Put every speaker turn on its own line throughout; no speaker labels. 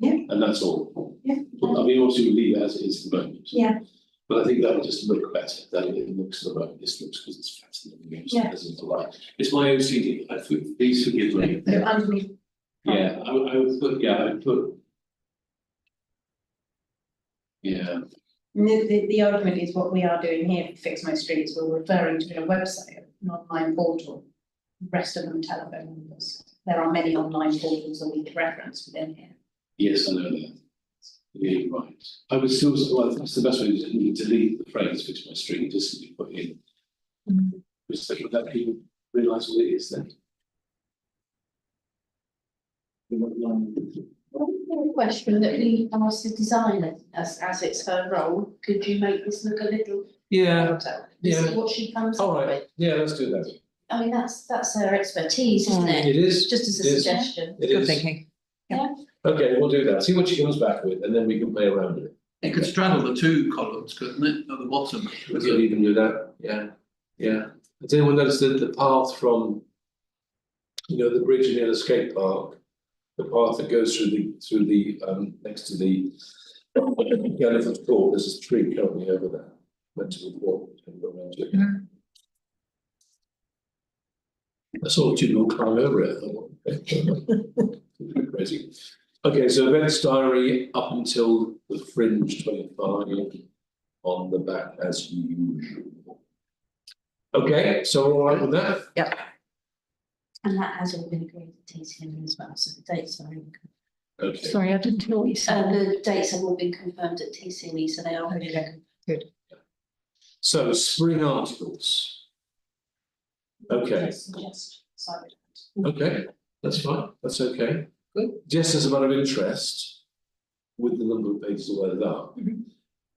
and that's all.
Yeah.
But I mean, obviously we leave it as it is at the moment.
Yeah.
But I think that would just look better, that it looks the way this looks because it's flat and everything else
Yeah.
doesn't align. It's my OCD, I think, please forgive me.
So underneath,
Yeah, I would, I would put, yeah, I would put. Yeah,
the, the, the argument is what we are doing here for Fix My Streets, we're referring to a website, an online portal. The Rest of them telephone numbers, there are many online portals that we could reference within here.
yes, I know that. Yeah, you're right. I would still, well, that's the best way to delete the phrase fix my street, just simply put in,
Mm-hmm.
just so that people realise what it is then.
One question that we asked the designer, as, as it's her role, could you make this look a little
Yeah,
better? This is
Uh, yeah.
what she comes
All right.
up with.
yeah, let's do that.
I mean, that's, that's her expertise, isn't it?
It is,
Just as a
Yes.
suggestion.
it
Good
is.
thinking.
Okay, we'll do that. See what she comes back with and then we can play around with it.
It could straddle the two columns, couldn't it, at the bottom?
We can even do that, yeah, yeah. Has anyone noticed that the path from, you know, the bridge near the skate park? The path that goes through the, through the, um, next to the elephant court, there's a tree currently over there. Went to the walk and go around it. I saw two people climb over it. I thought, okay. Crazy. Okay, so events diary up until the fringe twenty-five on the back as usual. Okay, so we're all right with that?
And that has all been agreed at TCM as well, so the dates are, in-
Okay,
Sorry, I didn't hear what you
uh,
said.
the dates have all been confirmed at TCM, so they are.
Okay.
so spring articles. Okay,
Suggest, sorry.
okay, that's fine, that's okay. Just as a matter of interest, with the number of pages that were up,
Mhm.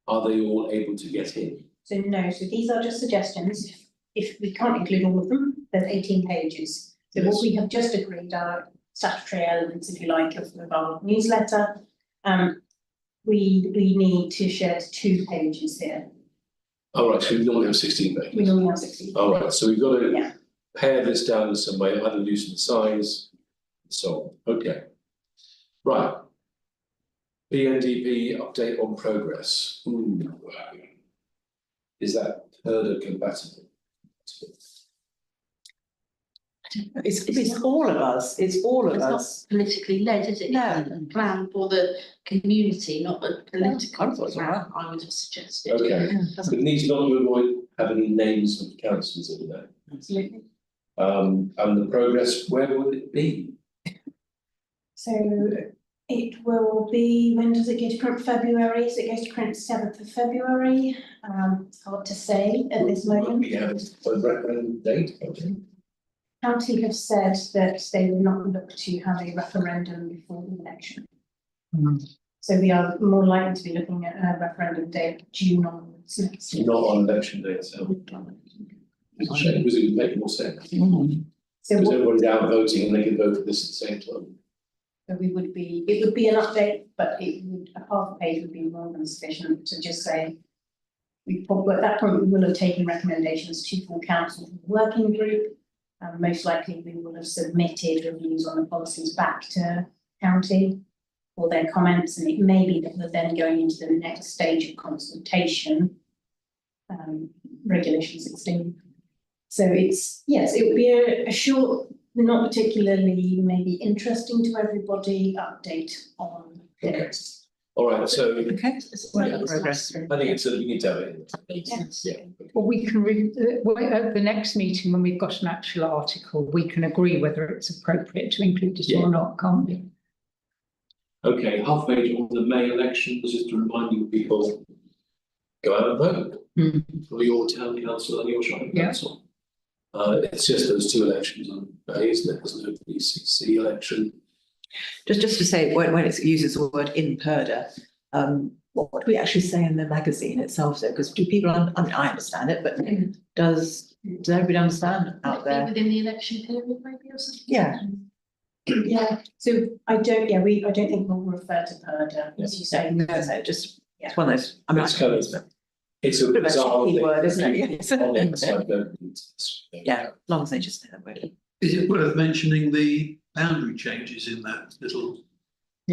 are they all able to get in?
So no, so these are just suggestions, if we can't include all of them, there's eighteen pages. So
Yes.
what we have just agreed are statutory elements, if you like, of of our newsletter. Um, we, we need to shed two pages here,
All Oh, right, so we normally have sixteen
we
pages.
only have sixteen.
All right, so we've got
Yeah.
to pare this down in some way, either loosen the size, so, on. okay. Right. BNDP update on progress. Ooh. Is that herder compatible?
It's, it's all of us, it's all of
It's not-
us.
Politically led, is it?
No.
It's a Plan for the community, not a
I thought
political
it was all right.
plan, I would have suggested.
Okay, we need to not to avoid having names of councillors in there.
Absolutely.
Um, and the progress, where would it be?
So it will be, when does it go to print? February, so it goes to print seventh of February. Um, it's hard to say at this moment.
We have a referendum date, okay?
County have said that they will not look to have a referendum before the election.
Hmm.
So we are more likely to be looking at a referendum date June onwards next year.
Not on election day itself. It's a shame, because it would make more sense.
Mm-hmm.
Mm.
So
Because
what-
everyone's out voting and they can vote for this at the same time.
so we would be, it would be an update, but it would, a half page would be more than sufficient to just say we probably, at that point, we will have taken recommendations to full council from the working group. And most likely, we will have submitted reviews on the policies back to county for their comments, and it may be that we're then going into the next stage of consultation. Um, regulation sixteen. So it's, yes, it would be a, a short, not particularly maybe interesting to everybody, update on this.
All right, so I
Okay,
It's
Well,
like it's
progress.
last-
think it's, we need to have it. in.
Yes.
Yeah.
well, we can, re- uh, well, at the next meeting, when we've got an actual article, we can agree whether it's appropriate to include it
Yeah.
or not, can't we?
Okay, half page on the May elections, just to remind you people, go out and vote.
Hmm.
For your town council and your shopping
Yeah.
council. Uh, it's just those two elections on May, isn't it? There's no BCC election.
Just, just to say, when, when it uses the word in Perda, um, what what do we actually say in the magazine itself though? Because do people, un- I mean, I understand it, but does, does everybody understand out
Might be
there?
Within the election period maybe or something?
Yeah.
Yeah, so I don't, yeah, we, I don't think we'll refer to PERDA, as you say.
No, no, just, it's one of those, I mean.
It's kind of-
it's a
It's a
bit of a
bizarre
tricky
thing.
word, isn't it?
On the
Yes.
inside, don't need this.
Yeah, as long as they just say that word.
Is it worth mentioning the boundary changes in that little